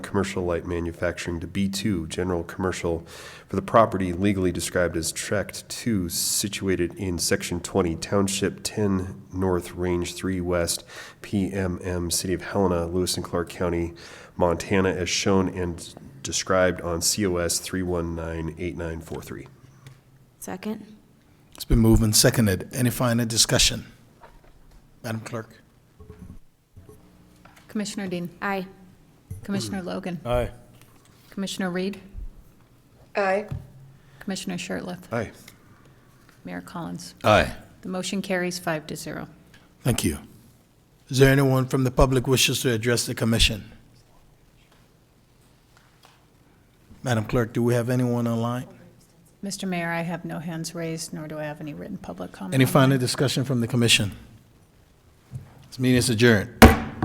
commercial light manufacturing to B2, general commercial, for the property legally described as Tract 2, situated in Section 20, Township 10 North, Range 3 West, PMM, City of Helena, Lewis and Clark County, Montana, as shown and described on COS 3198943. Second? It's been moved and seconded. Any final discussion? Madam Clerk? Commissioner Dean. Aye. Commissioner Logan. Aye. Commissioner Reed. aye, Commissioner Shertliff. Aye. Mayor Collins. Aye. The motion carries five to zero. Thank you. Is there anyone from the public wishes to address the commission? Madam Clerk, do we have anyone online? Mr. Mayor, I have no hands raised, nor do I have any written public comment. Any final discussion from the commission? This meeting is adjourned.